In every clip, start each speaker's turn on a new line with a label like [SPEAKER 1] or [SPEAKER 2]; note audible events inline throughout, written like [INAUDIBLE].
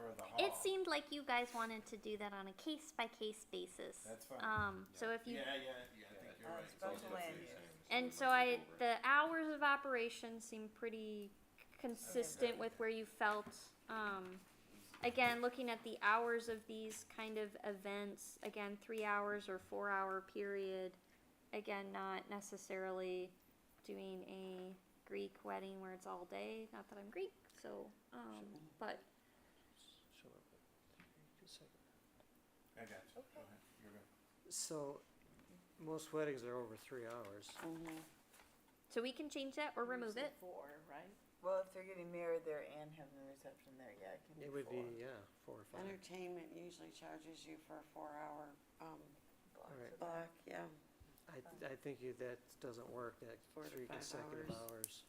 [SPEAKER 1] of the hall.
[SPEAKER 2] It seemed like you guys wanted to do that on a case by case basis.
[SPEAKER 1] That's fine.
[SPEAKER 2] Um, so if you,
[SPEAKER 1] Yeah, yeah, yeah, I think you're
[SPEAKER 3] Uh,
[SPEAKER 1] right. It's all
[SPEAKER 3] special
[SPEAKER 1] good
[SPEAKER 3] land
[SPEAKER 1] things.
[SPEAKER 3] use.
[SPEAKER 2] and so I, the hours of operation seem pretty consistent with where you felt. Um, again, looking at the hours of these kind of events, again, three hours or four hour period. Again, not necessarily doing a Greek wedding where it's all day, not that I'm Greek, so, um, but
[SPEAKER 1] I got you.
[SPEAKER 3] Okay.
[SPEAKER 1] Go ahead. You're good.
[SPEAKER 4] So, most weddings are over three hours.
[SPEAKER 2] So we can change that or remove it.
[SPEAKER 5] Four, right?
[SPEAKER 3] Well, if they're getting married there and having a reception there, yeah, it can be
[SPEAKER 4] It would be,
[SPEAKER 3] four.
[SPEAKER 4] yeah, four or five.
[SPEAKER 5] Entertainment usually charges you for a four-hour, um,
[SPEAKER 3] Blocks
[SPEAKER 4] Alright.
[SPEAKER 3] of Um,
[SPEAKER 5] block, yeah.
[SPEAKER 4] I, th- I think you, that doesn't work, that
[SPEAKER 5] Four to
[SPEAKER 4] three
[SPEAKER 5] five
[SPEAKER 4] consecutive
[SPEAKER 5] hours.
[SPEAKER 4] hours.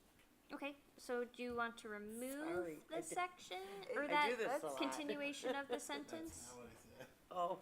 [SPEAKER 2] Okay, so do you want to remove
[SPEAKER 3] Sorry, I
[SPEAKER 2] the
[SPEAKER 3] did-
[SPEAKER 2] section
[SPEAKER 3] I-
[SPEAKER 2] or
[SPEAKER 3] I
[SPEAKER 2] that
[SPEAKER 3] do this a lot.
[SPEAKER 2] continuation
[SPEAKER 3] [LAUGHS]
[SPEAKER 2] of the
[SPEAKER 1] That's
[SPEAKER 2] sentence?
[SPEAKER 1] not what I said.
[SPEAKER 3] Oh,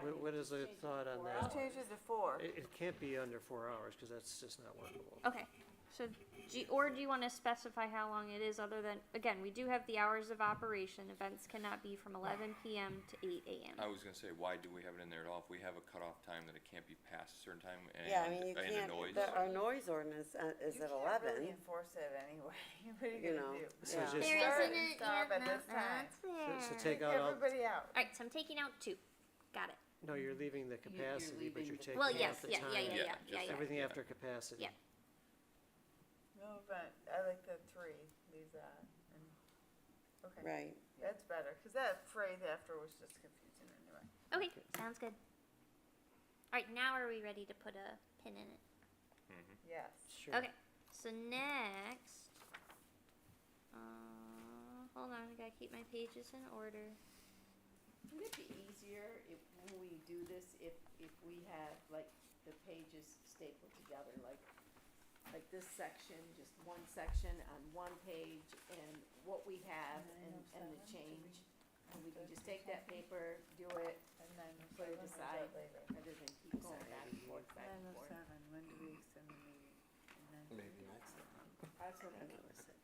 [SPEAKER 4] What, what is the thought on
[SPEAKER 3] let's
[SPEAKER 4] that?
[SPEAKER 3] change it to four.
[SPEAKER 4] It, it can't be under four hours, cause that's just not workable.
[SPEAKER 2] Okay, so, do you- or do you wanna specify how long it is other than, again, we do have the hours of operation, events cannot be from eleven PM to eight
[SPEAKER 6] I
[SPEAKER 4] Oh,
[SPEAKER 2] AM.
[SPEAKER 6] was gonna say, why do we have it in there at all? If we have a cutoff time that it can't be past a certain time and,
[SPEAKER 7] Yeah, I mean, you
[SPEAKER 6] and a
[SPEAKER 7] can't,
[SPEAKER 6] noise.
[SPEAKER 7] the, our noise ordinance uh, is
[SPEAKER 3] You
[SPEAKER 7] at
[SPEAKER 3] can't really [LAUGHS]
[SPEAKER 7] eleven.
[SPEAKER 3] enforce that anyway. What are you
[SPEAKER 7] You
[SPEAKER 3] gonna
[SPEAKER 7] know,
[SPEAKER 3] do?
[SPEAKER 4] So
[SPEAKER 7] Yeah.
[SPEAKER 4] just-
[SPEAKER 2] There
[SPEAKER 3] Start
[SPEAKER 2] isn't
[SPEAKER 3] and
[SPEAKER 2] it,
[SPEAKER 3] stop
[SPEAKER 2] yeah,
[SPEAKER 3] at this
[SPEAKER 2] no,
[SPEAKER 3] time.
[SPEAKER 4] So,
[SPEAKER 2] that's
[SPEAKER 4] so
[SPEAKER 2] there.
[SPEAKER 4] take out all,
[SPEAKER 3] Everybody out.
[SPEAKER 2] Alright, so I'm taking out two, got it.
[SPEAKER 4] no, you're leaving the capacity, but you're taking
[SPEAKER 2] Well,
[SPEAKER 4] out
[SPEAKER 2] yes,
[SPEAKER 4] the
[SPEAKER 2] yeah, yeah, yeah,
[SPEAKER 4] time.
[SPEAKER 2] yeah, yeah,
[SPEAKER 6] just
[SPEAKER 2] yeah.
[SPEAKER 4] Everything
[SPEAKER 6] Yeah.
[SPEAKER 4] after capacity.
[SPEAKER 2] Yeah.
[SPEAKER 3] No, but I like the three, leave that. and- Okay,
[SPEAKER 7] Right.
[SPEAKER 3] that's better, cause that phrase after was just confusing anyway.
[SPEAKER 2] Okay, sounds good. Alright, now are we ready to put a pin in it?
[SPEAKER 3] Yes.
[SPEAKER 4] Sure.
[SPEAKER 2] Okay, so next, uh, hold on, I gotta keep my pages in order.
[SPEAKER 5] Wouldn't it be easier if, when we do this, if, if we had like the pages stapled together, like, like this section, just one section on one page and what we have and, and the change? And we can just take that paper, do it,
[SPEAKER 3] And nine oh
[SPEAKER 5] Put
[SPEAKER 3] seven,
[SPEAKER 5] it
[SPEAKER 3] or is
[SPEAKER 5] aside.
[SPEAKER 3] that later?
[SPEAKER 5] rather than keep going back and forth, back
[SPEAKER 3] Nine
[SPEAKER 5] and
[SPEAKER 3] oh
[SPEAKER 5] forth.
[SPEAKER 3] seven, when do we send the meeting? And then-
[SPEAKER 1] Maybe next time.
[SPEAKER 7] I
[SPEAKER 5] That's what I
[SPEAKER 7] think it
[SPEAKER 5] mean.
[SPEAKER 7] was at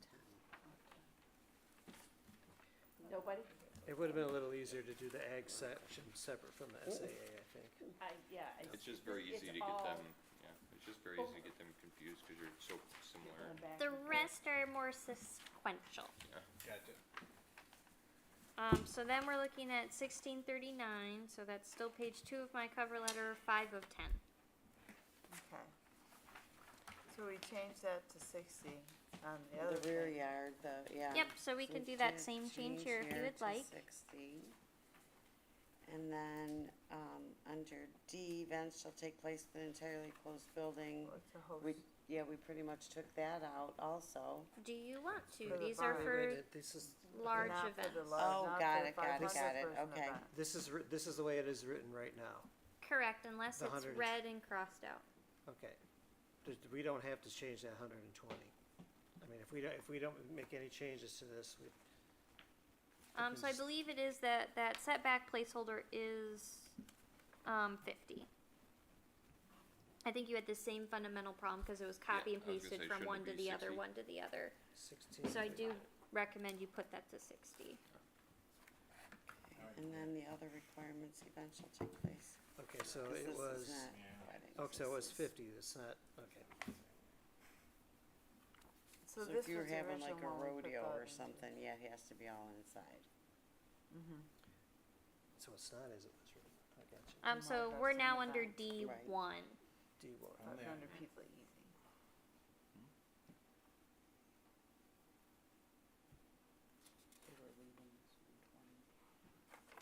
[SPEAKER 7] 10.
[SPEAKER 5] Nobody,
[SPEAKER 4] It would've been a little easier to do the ag section separate from the SAA, I think.
[SPEAKER 5] I, yeah, I.
[SPEAKER 6] It's just very
[SPEAKER 5] it's
[SPEAKER 6] easy to get
[SPEAKER 5] all
[SPEAKER 6] them, yeah, it's just very easy to
[SPEAKER 5] over.
[SPEAKER 6] get them confused because you're so similar.
[SPEAKER 5] going back
[SPEAKER 2] The
[SPEAKER 5] and forth.
[SPEAKER 2] rest are more sequential.
[SPEAKER 1] Gotcha.
[SPEAKER 2] Um, so then we're looking at sixteen thirty-nine, so that's still page two of my cover letter, five of ten.
[SPEAKER 3] Okay. So we changed that to sixty on the other.
[SPEAKER 7] The rear
[SPEAKER 3] thing.
[SPEAKER 7] yard, the, yeah.
[SPEAKER 2] Yep, so we can do that same change here if you would
[SPEAKER 7] to
[SPEAKER 2] like.
[SPEAKER 7] 60. And then, um, under D, events shall take place in an entirely closed building.
[SPEAKER 3] Well, It's a host.
[SPEAKER 7] We, yeah, we pretty much took that out also.
[SPEAKER 2] Do you want to?
[SPEAKER 3] For the
[SPEAKER 2] These are
[SPEAKER 3] barn.
[SPEAKER 2] for
[SPEAKER 4] Wait, This is,
[SPEAKER 2] large
[SPEAKER 3] Not for the
[SPEAKER 2] events.
[SPEAKER 3] large-
[SPEAKER 7] Oh,
[SPEAKER 3] not
[SPEAKER 7] got
[SPEAKER 3] the
[SPEAKER 7] it, got it, got
[SPEAKER 3] 500
[SPEAKER 7] it,
[SPEAKER 3] person
[SPEAKER 7] okay.
[SPEAKER 3] event.
[SPEAKER 4] this is, writ- this is the way it is written right now.
[SPEAKER 2] Correct, unless
[SPEAKER 4] The
[SPEAKER 2] it's
[SPEAKER 4] hundred is-
[SPEAKER 2] red and crossed out.
[SPEAKER 4] Okay. Th- We don't have to change that hundred and twenty. I mean, if we don't, if we don't make any changes to this, we,
[SPEAKER 2] Um, so I
[SPEAKER 4] Because-
[SPEAKER 2] believe it is that, that setback placeholder is, um, fifty. I think you had the same fundamental problem, cause it was copy
[SPEAKER 6] I
[SPEAKER 2] and
[SPEAKER 6] was gonna
[SPEAKER 2] pasted
[SPEAKER 6] say,
[SPEAKER 2] from
[SPEAKER 6] shouldn't it
[SPEAKER 2] one to
[SPEAKER 6] be
[SPEAKER 2] the other,
[SPEAKER 6] 60?
[SPEAKER 2] one to the other.
[SPEAKER 4] sixteen.
[SPEAKER 2] So I do recommend you put that to sixty.
[SPEAKER 7] And then the other requirements, events shall take place.
[SPEAKER 4] Okay, so
[SPEAKER 7] 'Cause
[SPEAKER 4] it
[SPEAKER 7] this is
[SPEAKER 4] was,
[SPEAKER 7] not
[SPEAKER 1] Yeah.
[SPEAKER 7] weddings,
[SPEAKER 4] oh, so it
[SPEAKER 7] this
[SPEAKER 4] was
[SPEAKER 7] is-
[SPEAKER 4] fifty, it's not, okay.
[SPEAKER 3] So
[SPEAKER 7] So
[SPEAKER 3] this was
[SPEAKER 7] if
[SPEAKER 3] the
[SPEAKER 7] you were having like a
[SPEAKER 3] original one we put
[SPEAKER 7] rodeo
[SPEAKER 3] thought
[SPEAKER 7] or
[SPEAKER 3] into.
[SPEAKER 7] something, yeah, it has to be all inside.
[SPEAKER 4] So it's not as it was written, I got you.
[SPEAKER 2] Um,
[SPEAKER 3] my
[SPEAKER 2] so
[SPEAKER 3] God,
[SPEAKER 2] we're
[SPEAKER 3] some
[SPEAKER 2] now
[SPEAKER 3] of
[SPEAKER 2] under
[SPEAKER 3] that.
[SPEAKER 2] D
[SPEAKER 7] Right.
[SPEAKER 2] one.
[SPEAKER 4] D one,
[SPEAKER 3] Five
[SPEAKER 1] Only
[SPEAKER 3] hundred people easy.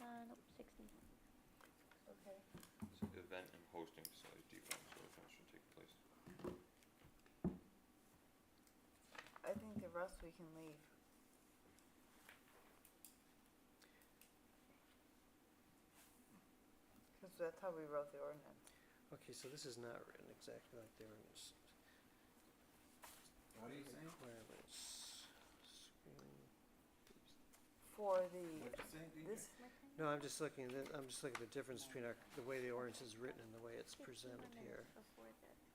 [SPEAKER 2] Uh, nope, sixty.
[SPEAKER 3] Okay.
[SPEAKER 6] So Event and hosting facilities, D one, so events should take place.
[SPEAKER 3] I think the rest we can leave. Cause that's how we wrote the ordinance.
[SPEAKER 4] okay, so this is not written exactly like the ordinance.
[SPEAKER 1] What are you saying?
[SPEAKER 4] Requirements, screen-
[SPEAKER 3] For the,
[SPEAKER 1] What'd you say? DJ?
[SPEAKER 3] this,
[SPEAKER 4] No, I'm just looking, at it- I'm just looking at the difference between our, the way the ordinance is written and the way it's presented here.
[SPEAKER 2] Before the